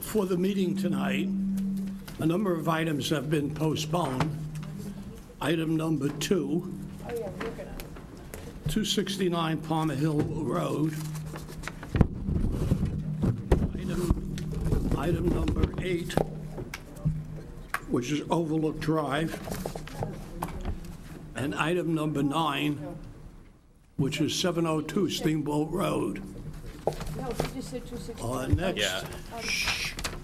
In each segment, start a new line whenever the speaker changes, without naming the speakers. for the meeting tonight, a number of items have been postponed. Item number two, 269 Palmer Hill Road. Item- Item number eight, which is Overlook Drive. And item number nine, which is 702 Steamboat Road.
No, she just said 260.
Uh, Next,
Yeah.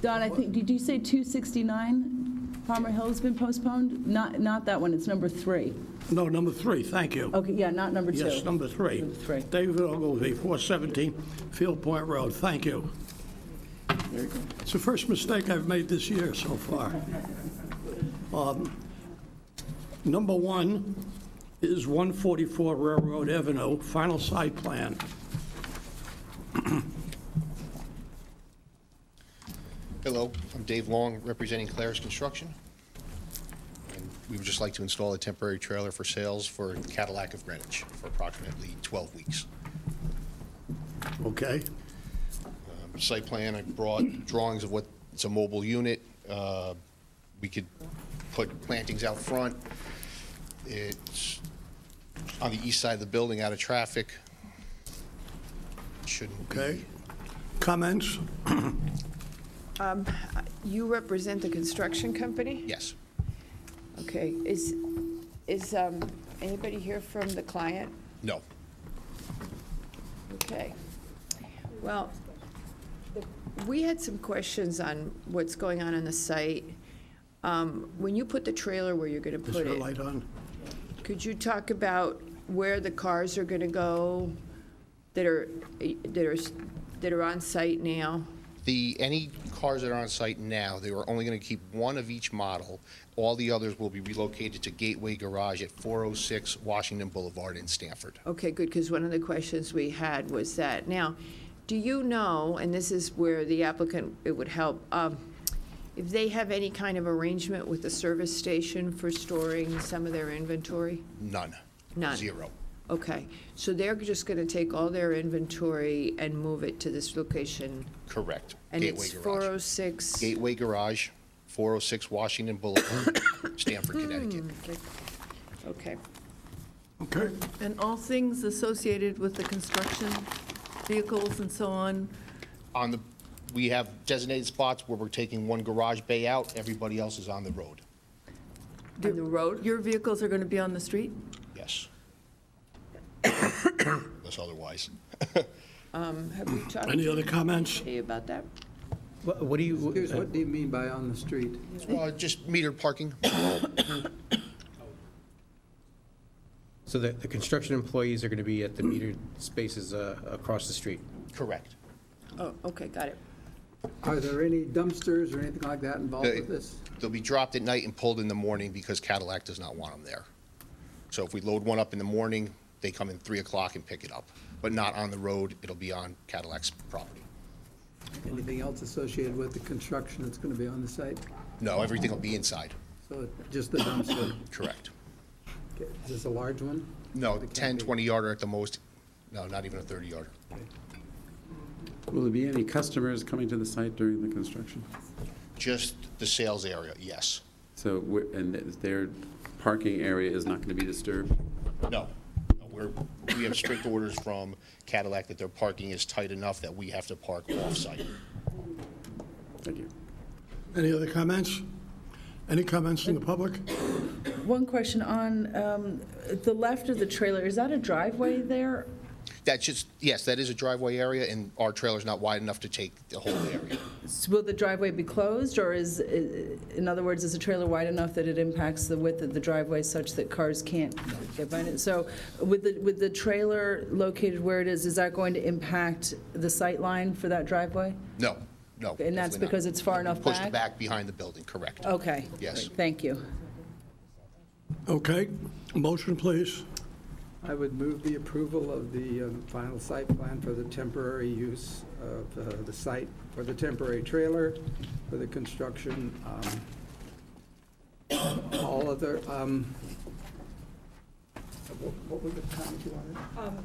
Don, I think, did you say 269 Palmer Hill's been postponed? Not, not that one, it's number three.
no, number three, thank you.
Okay, yeah, not number two.
Yes, number three.
Number three.
David Ogilvy, 417 Field Point Road. Thank you. It's the first mistake I've made this year so far. Um, Number one is 144 Railroad Avenue, final site plan.
Hello, I'm Dave Long, representing Claire's Construction. And We would just like to install a temporary trailer for sales for Cadillac of Greenwich for approximately 12 weeks.
Okay?
Um, Site plan, I brought drawings of what, it's a mobile unit. uh, We could put plantings out front. It's on the east side of the building, out of traffic. Shouldn't be.
Okay. Comments?
You represent the construction company?
Yes.
Okay, is, is um, anybody here from the client?
No.
Okay. Well, we had some questions on what's going on on the site. Um, When you put the trailer where you're going to
Is
put
there a
it,
light on?
could you talk about where the cars are going to go that are, that are, that are on site now?
The, any cars that are on site now, they are only going to keep one of each model. All the others will be relocated to Gateway Garage at 406 Washington Boulevard in Stanford.
Okay, good, because one of the questions we had was that. Now, do you know, and this is where the applicant, it would help, um, if they have any kind of arrangement with the service station for storing some of their inventory?
None.
None.
Zero.
Okay, so they're just going to take all their inventory and move it to this location?
Correct.
And
Gateway
it's
Garage.
406?
Gateway Garage, 406 Washington Boulevard, Stanford, Connecticut.
Hmm. Okay.
Okay.
And all things associated with the construction, vehicles and so on,
On the, we have designated spots where we're taking one garage bay out, everybody else is on the road.
On the road?
your vehicles are going to be on the street?
Yes. Unless otherwise.
Have we talked
Any other comments?
to you about that?
What what do you? uh, What do you mean by on the street?
Uh, Just metered parking.
So the, the construction employees are going to be at the metered spaces uh, across the street?
Correct.
Oh, okay, got it.
Are there any dumpsters or anything like that involved
They-
with this?
They'll be dropped at night and pulled in the morning because Cadillac does not want them there. So if we load one up in the morning, they come in 3 o'clock and pick it up, but not on the road, it'll be on Cadillac's property.
Anything else associated with the construction that's going to be on the site?
No, everything will be inside.
So just the dumpster.
Correct.
Is this a large one?
No,
It
10,
can't be.
20-yarder at the most, no, not even a 30-yarder.
Will there be any customers coming to the site during the construction?
Just the sales area, yes.
So, we're- and their parking area is not going to be disturbed?
No, No, we're, we have strict orders from Cadillac that their parking is tight enough that we have to park off-site.
Thank you.
Any other comments? Any comments from the public?
One question on um, the left of the trailer, is that a driveway there?
That's just, yes, that is a driveway area, and our trailer's not wide enough to take the whole area.
S- Will the driveway be closed, or is, in other words, is the trailer wide enough that it impacts the width of the driveway such that cars can't get by it? So with the, with the trailer located where it is, is that going to impact the sight line for that driveway?
No, no.
And that's
definitely not.
because it's far enough
Pushed
back?
back behind the building, correct.
Okay.
Yes.
Thank you.
Okay, motion, please.
I would move the approval of the um, final site plan for the temporary use of uh, the site for the temporary trailer for the construction. um, All other, um, what what were the comments you wanted?